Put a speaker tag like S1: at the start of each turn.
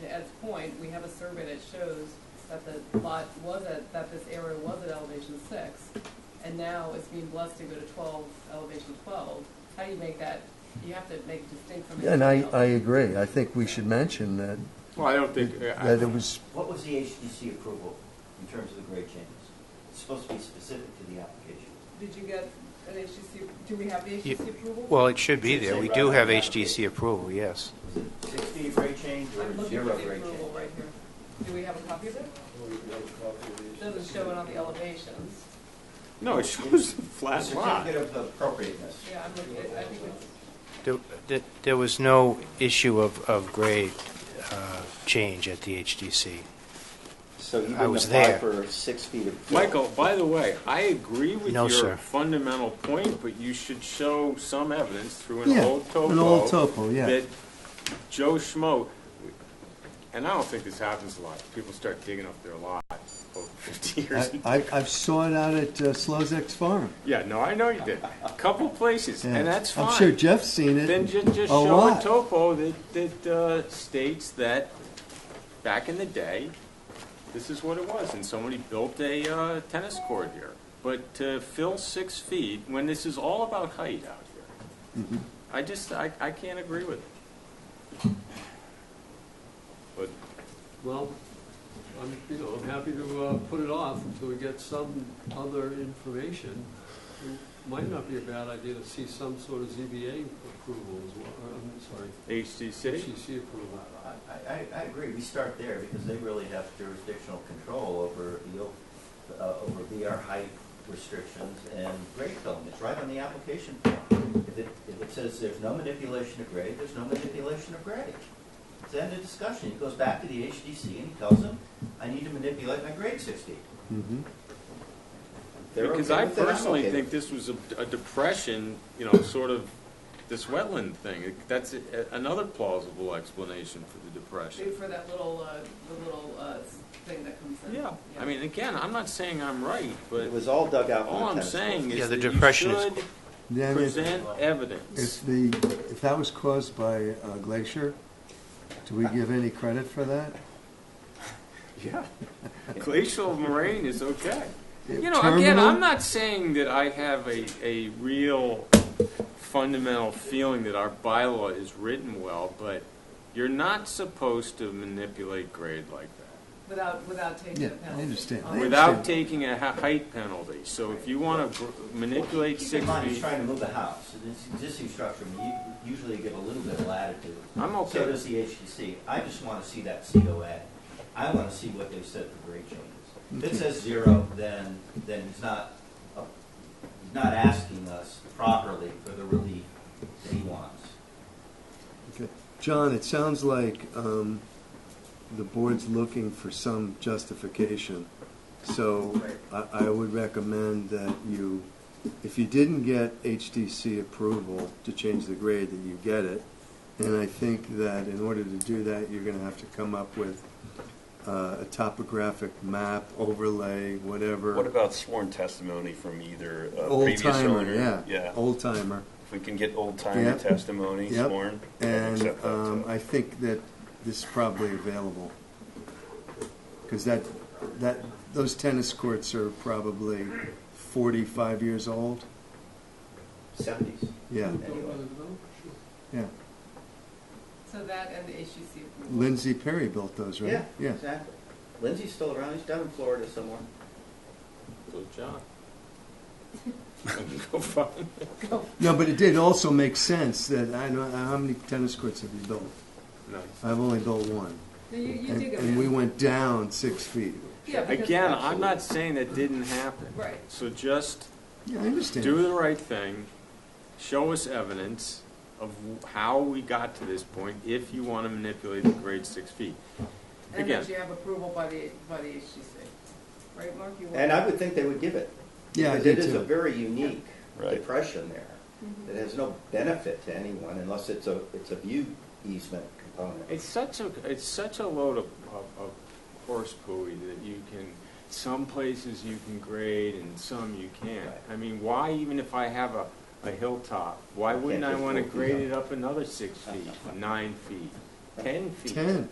S1: to Ed's point, we have a survey that shows that the lot was at, that this area was at elevation six, and now it's being blessed to go to twelve, elevation twelve. How do you make that, you have to make it distinct from
S2: And I,
S1: everything
S2: I
S1: else.
S2: agree. I think we should mention that,
S3: Well, I don't think, uh, I-
S2: that it was,
S4: What was the HDC approval in terms of the grade changes? It's supposed to be specific to the application.
S1: Did you get an HGC, do we have the
S5: You-
S1: HGC approval?
S5: Well, it should be there. We do have HDC approval, yes.
S4: Was it sixty grade change
S1: I'm
S4: or
S1: looking for
S4: zero
S1: the
S4: grade change?
S1: approval right here. Do we have a copy of it? It Doesn't show it on the elevations.
S3: no, it shows the
S4: The
S3: flat lot.
S4: certificate of appropriateness.
S1: Yeah, I'm looking, at- I think it's.
S5: There- there- There was no issue of, of grade uh, change at the HDC.
S6: So you
S5: I
S6: didn't
S5: was
S6: apply
S5: there.
S6: for six feet of fill?
S3: Michael, by the way, I agree with
S5: No,
S3: your
S5: sir.
S3: fundamental point, but you should show some evidence through an
S2: Yeah,
S3: old topo.
S2: an old topo, yeah.
S3: That Joe Schmo, and I don't think this happens a lot, people start digging up their lot over fifty years.
S2: I, I- I've saw it out at uh, Slozak's farm.
S3: Yeah, no, I know you did, a couple places,
S2: Yeah.
S3: and that's fine.
S2: I'm sure Jeff's seen it.
S3: Then ju- just
S2: a
S3: show a
S2: lot.
S3: topo that, that uh, states that back in the day, this is what it was, and somebody built a uh, tennis court here. But to fill six feet, when this is all about height out here,
S2: Mm-hmm.
S3: I just, I, I can't agree with it. But
S7: Well, I'm, you know, I'm happy to uh, put it off until we get some other information. It Might not be a bad idea to see some sort of ZBA approval as well, or, I'm sorry,
S3: HDC,
S7: HCC approval.
S4: I, I, I agree, we start there because they really have jurisdictional control over the, o- uh, over VR height restrictions and grade filling. It's right on the application form. If it, if it says there's no manipulation of grade, there's no manipulation of grade. It's end of discussion. He goes back to the HDC and he tells them, I need to manipulate my grade sixty.
S2: Mhm.
S4: They're
S3: because
S4: okay
S3: I
S4: with it, I'm
S3: personally
S4: okay with
S3: think
S4: it.
S3: this was a a depression, you know, sort of this wetland thing. That's a- another plausible explanation for the depression.
S1: Wait for that little, uh, the little, uh, thing that comes in.
S3: Yeah, I mean, again, I'm not saying I'm right, but
S6: It was all dug out. from
S3: all
S6: the
S3: I'm
S6: tennis court.
S3: saying
S5: Yeah,
S3: is
S5: the
S3: that you
S5: depression is-
S3: should
S2: Then if-
S3: present evidence.
S2: if the, if that was caused by a glacier, do we give any credit for that?
S3: Yeah. Glacial moraine is okay.
S2: It-
S3: You know, again,
S2: terminal?
S3: I'm not saying that I have a, a real fundamental feeling that our bylaw is written well, but you're not supposed to manipulate grade like that
S1: Without, without taking
S2: Yeah,
S1: a penalty.
S2: I understand.
S1: Um,
S3: without taking a ha- height penalty. So if you want to manipulate
S4: Keep in
S3: six
S4: mind, he's
S3: feet,
S4: trying to move a house, and it's existing structure, I mean, you usually give a little bit of latitude.
S3: I'm okay
S4: So
S3: with
S4: does the HDC. I just want to see that COA. I want to see what they said for grade changes. If it says zero, then, then he's not, uh, he's not asking us properly for the relief that he wants.
S2: Okay. John, it sounds like um, the board's looking for some justification. So I, I would recommend that you, if you didn't get HDC approval to change the grade, that you get it. And I think that in order to do that, you're going to have to come up with uh, a topographic map, overlay, whatever.
S8: What about sworn testimony from either a
S2: Old
S8: previous
S2: timer,
S8: owner?
S2: yeah. Old timer.
S8: If we can get old timer
S2: Yeah.
S8: testimony
S2: Yep.
S8: sworn, I'd
S2: And
S8: accept that,
S2: um,
S8: too.
S2: I think that this is probably available. Because that, that, those tennis courts are probably 45 years old.
S4: Seventies.
S2: Yeah,
S7: Don't let it go? Sure.
S2: yeah.
S1: So that and the HGC approval.
S2: Lindsay Perry built those, right?
S4: Exactly. Lindsay's still around. He's down in Florida somewhere.
S3: Go John. Go find.
S2: No, but it did also make sense that, I know, how many tennis courts have you built?
S3: No.
S2: I've only built one.
S1: No, you, you
S2: And
S1: do go
S2: and we
S1: in.
S2: went down six feet.
S1: Yeah, because-
S3: Again, I'm not saying that didn't happen.
S1: Right.
S3: So just
S2: Yeah, I understand.
S3: do the right thing, show us evidence of w- how we got to this point, if you want to manipulate the grade six feet.
S1: And
S3: again.
S1: that you have approval by the, by the HGC. Right, Mark? You
S6: And I
S1: want-
S6: would think they would give it.
S2: Yeah, I
S6: Because it
S2: do
S6: is a
S2: too.
S6: very unique
S8: Right.
S6: depression there. It has no benefit to anyone unless it's a, it's a view easement component.
S3: It's such a, it's such a load of, of, of horse pooey that you can, some places you can grade and some you can't.
S6: Right.
S3: I mean, why, even if I have a, a hilltop, why
S6: You can't
S3: wouldn't I
S6: just
S3: want to
S6: walk
S3: grade
S6: down.
S3: it up another six feet, nine feet, ten feet?
S2: 10.